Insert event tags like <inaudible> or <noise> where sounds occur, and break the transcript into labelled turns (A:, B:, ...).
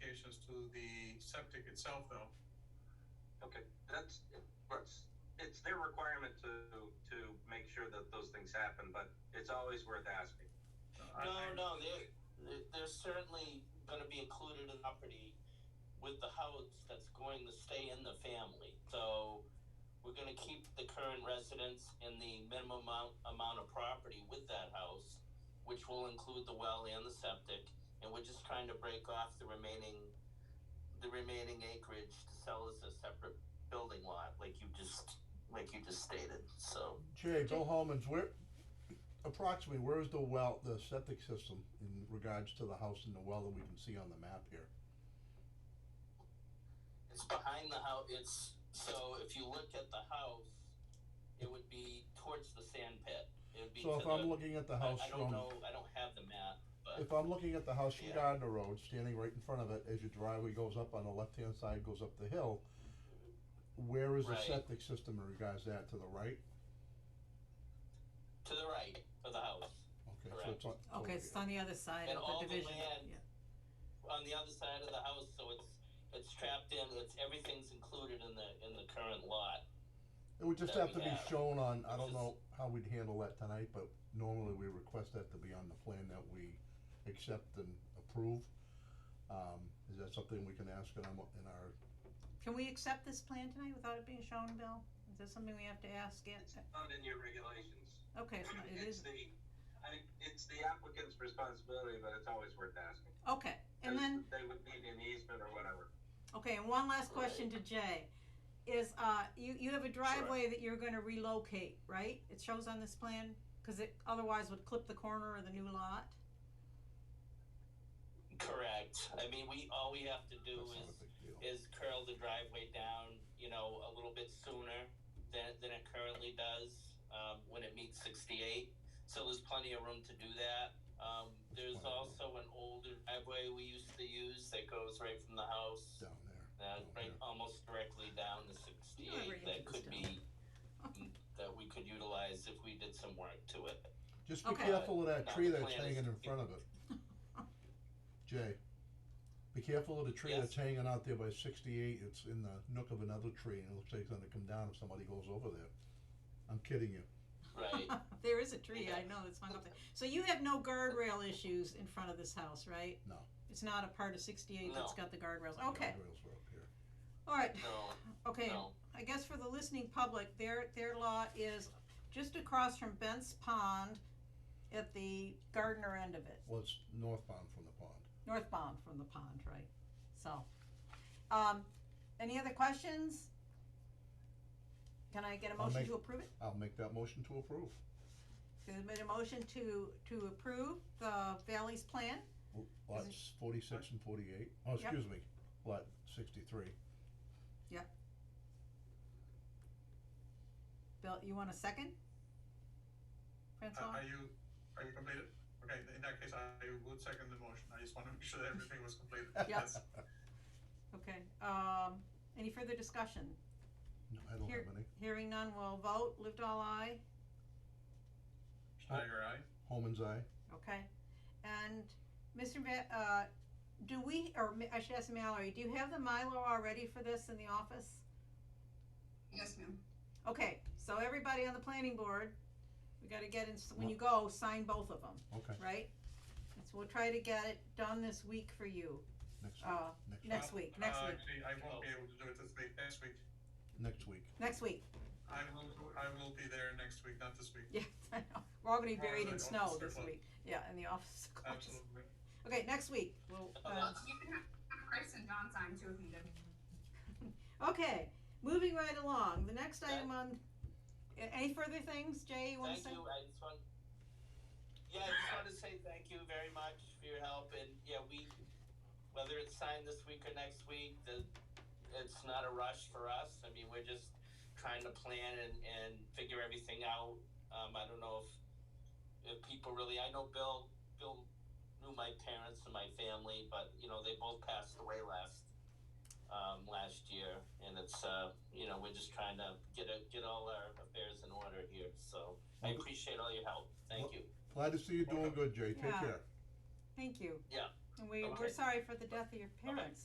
A: to the septic itself though.
B: Okay, that's, that's, it's their requirement to, to make sure that those things happen, but it's always worth asking.
A: I-
C: No,
A: I-
C: no, they're, they're- they're certainly gonna be included in property with the house that's going to stay in the family. So we're gonna keep the current residents in the minimum amount, amount of property with that house, which will include the well and the septic, and we're just trying to break off the remaining, the remaining acreage to sell as a separate building lot, like you just, like you just stated, so.
D: Jay, Bill Holman's, where, approximately, where is the well, the septic system in regards to the house and the well that we can see on the map here?
C: It's behind the house. It's so if you look at the house, it would be towards the sand pit. It would be. to
D: So if I'm
C: the-
D: looking at the
C: I-
D: house
C: I, don't
D: from,
C: know. I don't have the map, but
D: if I'm looking at the house from
C: Yeah.
D: Gardner Road, standing right in front of it, as your driveway goes up on the left-hand side, goes up the hill, where is the
C: Right.
D: septic system in regards to that, to the right?
C: to the right of the house,
D: Okay, so it's on.
E: Okay, it's on the other side
C: And
E: of
C: all
E: the
C: the
E: division.
C: land-
E: Yeah.
C: on the other side of the house. So it's it's trapped in. It's everything's included in the in the current lot.
D: It would just
C: that
D: have to
C: we
D: be
C: have.
D: shown on, I don't
C: It's
D: know how we'd handle that tonight, but normally we request that to be on the plan that we accept and approve. Um, is that something we can ask in our, in our,
E: Can we accept this plan tonight without it being shown, Bill? Is that something we have to ask yet?
B: It's not in your regulations.
E: Okay, it's not- it
B: It's
E: is,
B: the, I, it's the applicant's responsibility, but it's always worth asking.
E: okay, and then,
B: They would need an easement or whatever.
E: okay, and one last question to Jay. Is, uh, you, you have a driveway that you're gonna relocate, right? It shows on this plan, cause it otherwise would clip the corner of the new lot? <laughs>
C: Correct. I mean, we all we have to do
D: that's not
C: is
D: a big deal.
C: is curl the driveway down, you know, a little bit sooner than, than it currently does um, when it meets 68. So there's plenty of room to do that. Um, there's also an older driveway we used to use that goes right from the house,
D: down there?
C: uh,
D: down
C: right
D: here.
C: almost directly down to
E: You were
C: 68.
E: into
C: That
E: this
C: could be <laughs> that we could utilize if we did some work to it.
D: Just be
E: Okay.
D: careful of that
C: Now
D: tree
C: the
D: that's
C: plan is-
D: hanging in front
C: <laughs>
D: of it. Jay, be careful of the tree
C: Yes.
D: that's hanging out there by sixty-eight, it's in the nook of another tree, and it looks like it's gonna come down if somebody goes over there. I'm kidding you.
C: Right.
E: <laughs> There is a tree, I know, that's hung up there. So you have no guardrail issues in front of this house, right?
D: No.
E: It's not a part of sixty-eight that's
C: No.
E: got the guardrails, okay,
D: Guardrails were up here.
E: alright,
C: no,
E: okay.
C: no.
E: I guess for the listening public, their, their lot is just across from Bent's Pond at the Gardner end of it,
D: Well, it's northbound from the pond.
E: northbound from the pond, right? So, um, any other questions? Can I get a
D: I'll
E: motion
D: make-
E: to approve it?
D: I'll make that motion to approve.
E: There's been a motion to, to approve the Valley's plan,
D: L- Lots forty-six and forty-eight. Oh,
E: Yep.
D: excuse me, lot sixty-three.
E: Bill, you want a second?
A: Uh,
E: Francois?
A: Are you, are you completed? Okay, in that case, I would second the motion. I just want to make sure that everything was completed.
D: Yep.
A: That's-
E: Okay, um, any further discussion?
D: No, I don't
E: Here-
D: have any.
E: Hearing none, we'll vote, lived all eye,
A: Schneider, aye?
D: Holman's eye.
E: Okay, and Mr. Ma- uh, do we, or Ma- I should ask Mallory, do you have the Milo already for this in the office?
F: Yes, ma'am.
E: Okay, so everybody on the planning board, we gotta get in, when you go, sign both of them,
D: Okay,
E: right? And so we'll try to get it done this week for you,
D: next,
E: uh,
D: next,
E: next week, next
A: Uh,
E: week.
A: Actually, I won't be able to do it this week, next week.
D: next week.
E: next week, <laughs>
A: I will, I will be there next week, not this week,
E: yeah, I know, we're all gonna be
A: Well,
E: buried
A: the
E: in snow
A: office
E: this
A: closed.
E: week, yeah, and the office <laughs> is closed.
A: absolutely.
E: Okay, next week, we'll, uh,
F: You can have Chris and Don sign too if needed.
E: Okay, moving right along, the next item on, a- any further things, Jay, you wanna
C: Thank
E: say?
C: you. I just want. Yeah, I just want to say thank you very much for your help, and yeah, we, whether it's signed this week or next week, the, it's not a rush for us. I mean, we're just trying to plan and, and figure everything out. Um, I don't know if, if people really, I know Bill, Bill knew my parents and my family, but, you know, they both passed away last, um, last year, and it's, uh, you know, we're just trying to get a, get all our affairs in order here, so. I appreciate all your help. Thank you.
D: Glad to see you doing
A: Welcome.
D: good, Jay. Take
E: Yeah.
D: care.
E: Thank you.
C: Yeah.
E: And we, we're
C: Okay.
E: sorry for the death of your parents.